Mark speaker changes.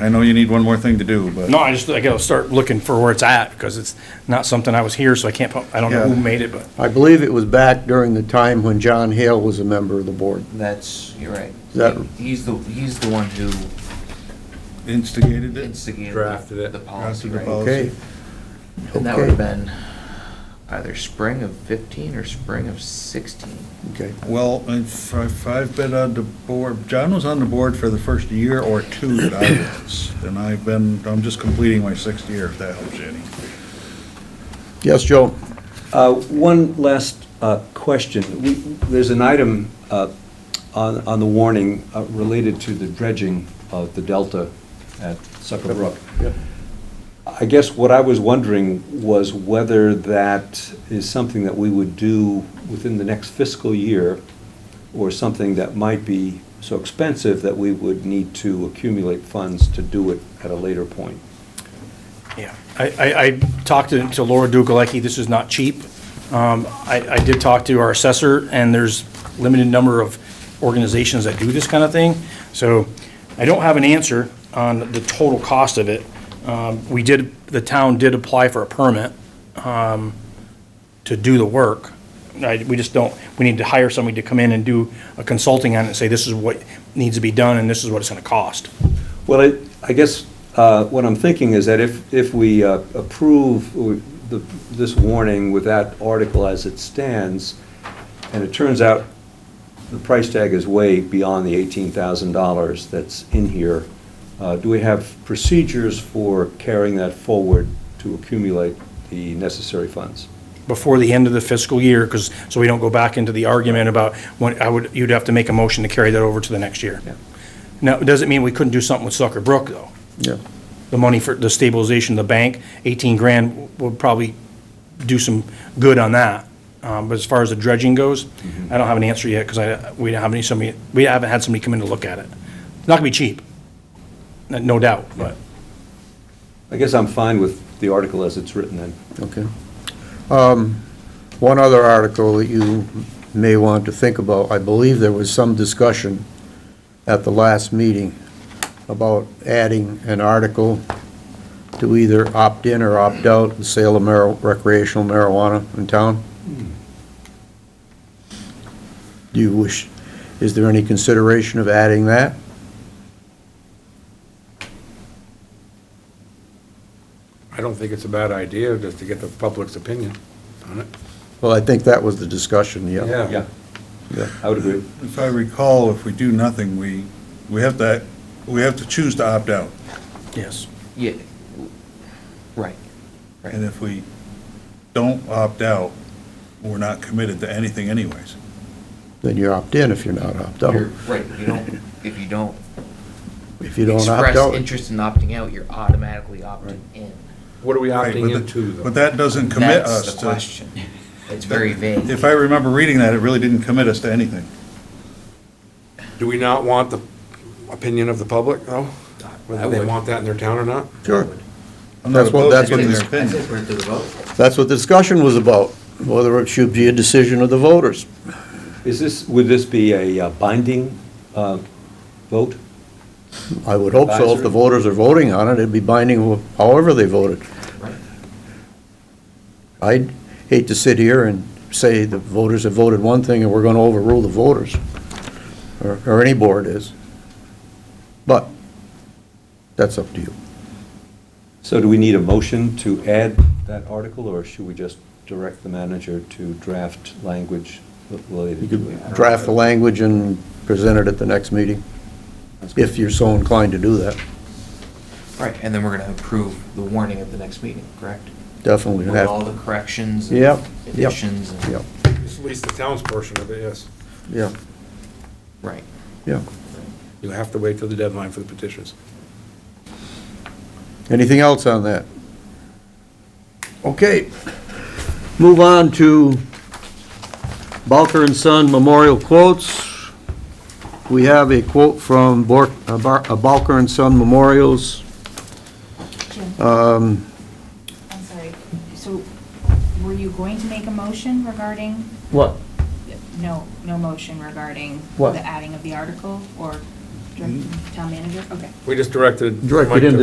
Speaker 1: I know you need one more thing to do, but.
Speaker 2: No, I just, I gotta start looking for where it's at, because it's not something I was here, so I can't, pu- I don't know who
Speaker 1: Yeah.
Speaker 2: made it, but
Speaker 3: I believe it was back during the time when John Hale was a member of the board.
Speaker 4: That's, you're right.
Speaker 3: That-
Speaker 4: He's the, he's the one who
Speaker 1: Instigated it?
Speaker 4: instigated
Speaker 5: Drafted it.
Speaker 4: the policy,
Speaker 1: Drafted the
Speaker 4: right?
Speaker 1: policy.
Speaker 3: Okay,
Speaker 4: And that would have
Speaker 3: Okay.
Speaker 4: been either spring of fifteen or spring of sixteen.
Speaker 3: okay.
Speaker 1: Well, if if I've been on the board, John was on the board for the first year or two that I was. And I've been, I'm just completing my sixth year, if that helps you any.
Speaker 3: Yes, Joe?
Speaker 6: Uh, One last uh, question. We- There's an item uh, on on the warning uh, related to the dredging of the delta at Sucker Brook.
Speaker 3: Yep.
Speaker 6: I guess what I was wondering was whether that is something that we would do within the next fiscal year, or something that might be so expensive that we would need to accumulate funds to do it at a later point.
Speaker 2: Yeah, I, I, I talked to to Laura Dugalecki, this is not cheap. Um, I, I did talk to our assessor, and there's limited number of organizations that do this kind of thing. So I don't have an answer on the total cost of it. Um, we did, the town did apply for a permit, um, to do the work. I, we just don't, we need to hire somebody to come in and do a consulting on it and say, this is what needs to be done, and this is what it's gonna cost.
Speaker 6: Well, I, I guess uh, what I'm thinking is that if, if we uh, approve w- the- this warning with that article as it stands, and it turns out the price tag is way beyond the $18,000 that's in here, uh, do we have procedures for carrying that forward to accumulate the necessary funds?
Speaker 2: before the end of the fiscal year, because, so we don't go back into the argument about when, I would, you'd have to make a motion to carry that over to the next year.
Speaker 6: Yeah.
Speaker 2: Now, it doesn't mean we couldn't do something with Sucker Brook, though.
Speaker 3: Yeah.
Speaker 2: The money for the stabilization of the bank, eighteen grand would probably do some good on that. Um, but as far as the dredging goes, I don't have an answer yet, because I, we don't have any, somebody, we haven't had somebody come in to look at it. It's Not gonna be cheap, no- no doubt, but.
Speaker 6: I guess I'm fine with the article as it's written then.
Speaker 3: Okay. Um, One other article that you may want to think about, I believe there was some discussion at the last meeting about adding an article to either opt in or opt out the sale of mar- recreational marijuana in town. Do you wish, is there any consideration of adding that?
Speaker 5: I don't think it's a bad idea just to get the public's opinion on it.
Speaker 3: Well, I think that was the discussion, yeah.
Speaker 6: Yeah,
Speaker 3: Yeah.
Speaker 6: I would agree.
Speaker 1: If I recall, if we do nothing, we, we have to, we have to choose to opt out.
Speaker 2: Yes.
Speaker 4: Yeah, right.
Speaker 1: And if we don't opt out, we're not committed to anything anyways.
Speaker 3: Then you opt in if you're not opt out.
Speaker 4: You're, right, you don't, if you don't
Speaker 3: If you don't opt
Speaker 4: express
Speaker 3: out.
Speaker 4: interest in opting out, you're automatically opting in.
Speaker 5: What are we
Speaker 1: Right, but
Speaker 5: opting
Speaker 1: the-
Speaker 5: into, though?
Speaker 1: But that doesn't commit us to.
Speaker 4: That's the question. It's very vague.
Speaker 1: If I remember reading that, it really didn't commit us to anything.
Speaker 5: Do we not want the opinion of the public, though? Whether they want that in their town or not?
Speaker 3: Sure.
Speaker 1: I'm not
Speaker 3: That's what-
Speaker 1: opposed to
Speaker 3: that's what
Speaker 1: getting
Speaker 3: this-
Speaker 1: their opinion.
Speaker 3: That's what the discussion was about, whether it should be a decision of the voters.
Speaker 6: Is this, would this be a uh, binding uh, vote?
Speaker 3: I would hope so, if the
Speaker 6: Advisory?
Speaker 3: voters are voting on it, it'd be binding wh- however they voted.
Speaker 4: Right.
Speaker 3: I'd hate to sit here and say the voters have voted one thing and we're going to overrule the voters, or or any board is. But that's up to you.
Speaker 6: So do we need a motion to add that article, or should we just direct the manager to draft language
Speaker 3: You
Speaker 6: related to
Speaker 3: could
Speaker 6: it?
Speaker 3: draft the language and present it at the next meeting, if you're so inclined to do that.
Speaker 4: Right, and then we're gonna approve the warning at the next meeting, correct?
Speaker 3: Definitely
Speaker 4: With all
Speaker 3: have,
Speaker 4: the corrections and
Speaker 3: Yep, yep,
Speaker 4: additions and.
Speaker 3: yeah,
Speaker 5: It's At least the town's portion of it, yes.
Speaker 3: yeah,
Speaker 4: Right.
Speaker 3: yeah.
Speaker 5: You have to wait till the deadline for the petitions.
Speaker 3: Anything else on that? Okay. Move on to Balker and Son Memorial Quotes. We have a quote from Bor- uh, Bar- uh, Balker and Son Memorials.
Speaker 7: Jim,
Speaker 3: Um,
Speaker 7: I'm sorry. So were you going to make a motion regarding,
Speaker 3: What?
Speaker 7: no, no motion regarding
Speaker 3: What?
Speaker 7: the adding of the article? Or
Speaker 8: Direct- Town manager, okay.
Speaker 5: We just directed.
Speaker 7: Directed
Speaker 5: Mike to-
Speaker 7: into